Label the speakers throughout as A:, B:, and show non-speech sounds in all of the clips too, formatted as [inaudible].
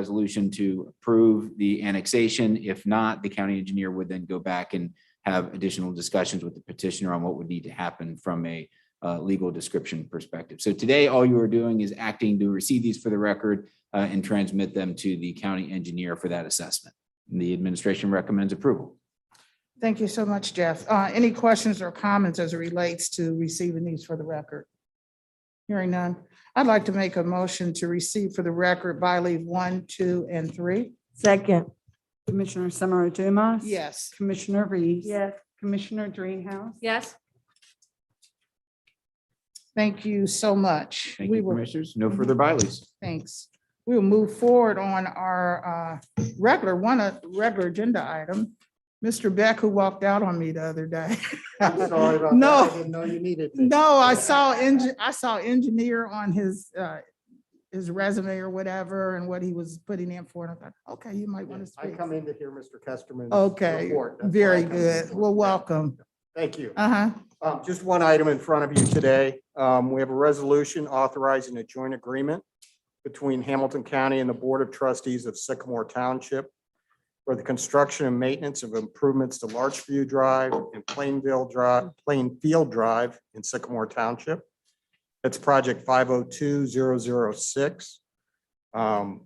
A: resolution to approve the annexation. If not, the county engineer would then go back and have additional discussions with the petitioner on what would need to happen from a uh, legal description perspective. So today, all you are doing is acting to receive these for the record uh, and transmit them to the county engineer for that assessment. The administration recommends approval.
B: Thank you so much, Jeff. Uh, Any questions or comments as it relates to receiving these for the record? Hearing none. I'd like to make a motion to receive for the record by leave one, two, and three.
C: Second,
D: Commissioner Summer Dumas.
B: Yes.
D: Commissioner Reese.
C: yes,
D: Commissioner Dreehouse.
E: Yes,
B: Thank you so much.
A: Thank
B: We
A: you,
B: will-
A: Commissioners. No further bylaws.
B: Thanks. We will move forward on our uh, regular, one uh, regular agenda item. Mr. Beck, who walked out on me the other day.
F: I'm sorry about that.
B: No.
F: I didn't know you needed me.
B: No, I saw, engi- I saw engineer on his, uh, his resume or whatever and what he was putting in for. And I thought, okay, you might want to
F: I
B: speak.
F: come in to hear Mr. Kesterman's.
B: Okay,
F: report. That's why I
B: very
F: come in.
B: good. Well, welcome.
F: Thank you.
B: Uh-huh.
F: Um, Just one item in front of you today. Um, We have a resolution authorizing a joint agreement between Hamilton County and the Board of Trustees of Sycamore Township for the construction and maintenance of improvements to Larchview Drive and Plainville Drive, Plainfield Drive in Sycamore Township. That's project 502006. Um,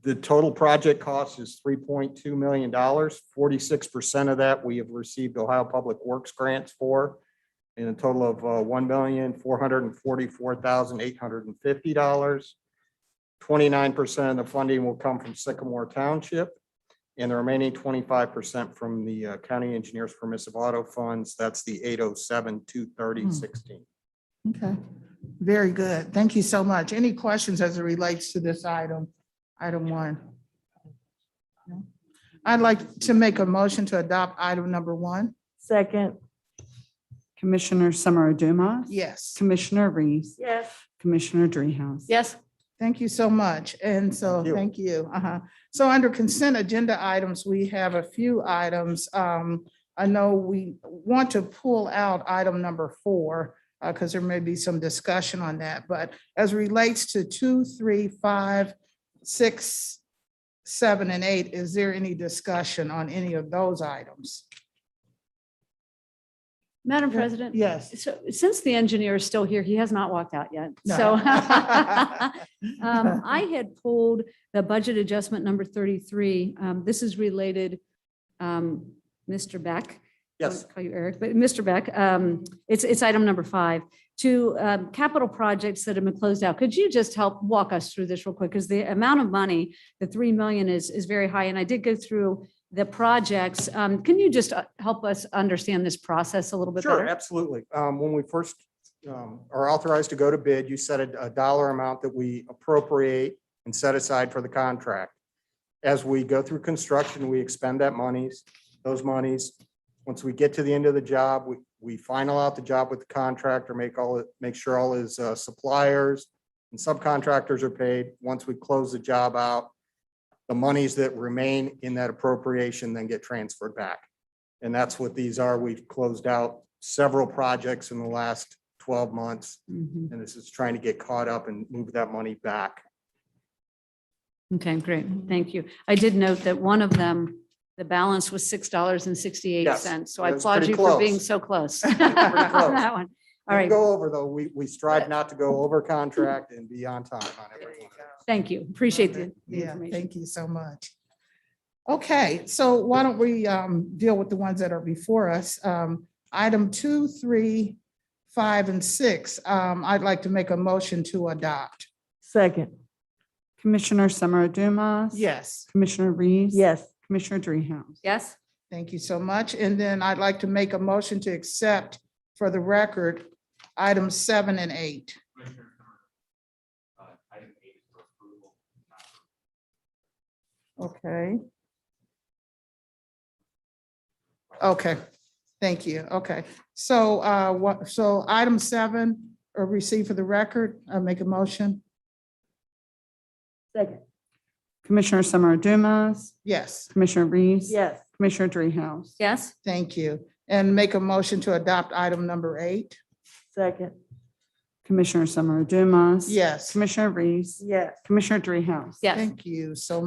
F: The total project cost is $3.2 million. 46% of that we have received Ohio Public Works grants for in a total of uh, one million, four hundred and forty-four thousand, eight hundred and fifty dollars. Twenty-nine percent of the funding will come from Sycamore Township and the remaining twenty-five percent from the uh, County Engineers Permissive Auto Funds. That's the eight oh seven, two thirty, sixteen.
B: Okay, very good. Thank you so much. Any questions as it relates to this item, item one? No? I'd like to make a motion to adopt item number one.
C: second,
D: Commissioner Summer Dumas.
B: Yes,
D: Commissioner Reese.
C: yes,
D: Commissioner Dreehouse.
E: yes,
B: thank you so much. And so,
F: Thank you.
B: thank you. Uh-huh. So under consent agenda items, we have a few items. Um, I know we want to pull out item number four because there may be some discussion on that. But as relates to two, three, five, six, seven, and eight, is there any discussion on any of those items?
E: Madam President.
B: Yes.
E: So since the engineer is still here, he has not walked out yet.
B: No.
E: So [laughs] um, I had pulled the budget adjustment number 33. Um, This is related, um, Mr. Beck. I
F: Yes,
E: won't Call you Eric, but Mr. Beck, um, it's, it's item number five, to um, capital projects that have been closed out. Could you just help walk us through this real quick? Because the amount of money, the 3 million is, is very high, and I did go through the projects. Um, Can you just uh, help us understand this process a little bit
F: sure,
E: better?
F: absolutely. Um, When we first um, are authorized to go to bid, you set a a dollar amount that we appropriate and set aside for the contract. As we go through construction, we expend that monies, those monies. Once we get to the end of the job, we, we final out the job with the contractor, make all, make sure all his uh, suppliers and subcontractors are paid. Once we close the job out, the monies that remain in that appropriation then get transferred back. And that's what these are. We've closed out several projects in the last twelve months.
E: Mhm.
F: And this is trying to get caught up and move that money back.
E: Okay, great. Thank you. I did note that one of them, the balance was $6.68. So I
F: Yes,
E: applaud
F: pretty
E: you for being
F: close.
E: so close.
F: Pretty
E: [laughs]
F: close.
E: on that one. All
F: We
E: right,
F: Go over though. We, we strive not to go over contract and be on time on everything.
E: thank you. Appreciate the the
B: Yeah,
E: information.
B: thank you so much. Okay, so why don't we um, deal with the ones that are before us? Um, Item two, three, five, and six, um, I'd like to make a motion to adopt.
C: second,
D: Commissioner Summer Dumas.
B: Yes,
D: Commissioner Reese.
C: yes,
D: Commissioner Dreehouse.
E: Yes,
B: thank you so much. And then I'd like to make a motion to accept for the record, items seven and eight. Okay. Okay, thank you. Okay, so uh, what, so item seven, or receive for the record, uh, make a motion?
C: second,
D: Commissioner Summer Dumas.
B: Yes,
D: Commissioner Reese.
C: yes,
D: Commissioner Dreehouse.
E: yes,
B: thank you. And make a motion to adopt item number eight.
C: second,
D: Commissioner Summer Dumas.
B: Yes.
D: Commissioner Reese.
B: Yes.
D: Commissioner Dreehouse.
E: Yes.
B: Thank you so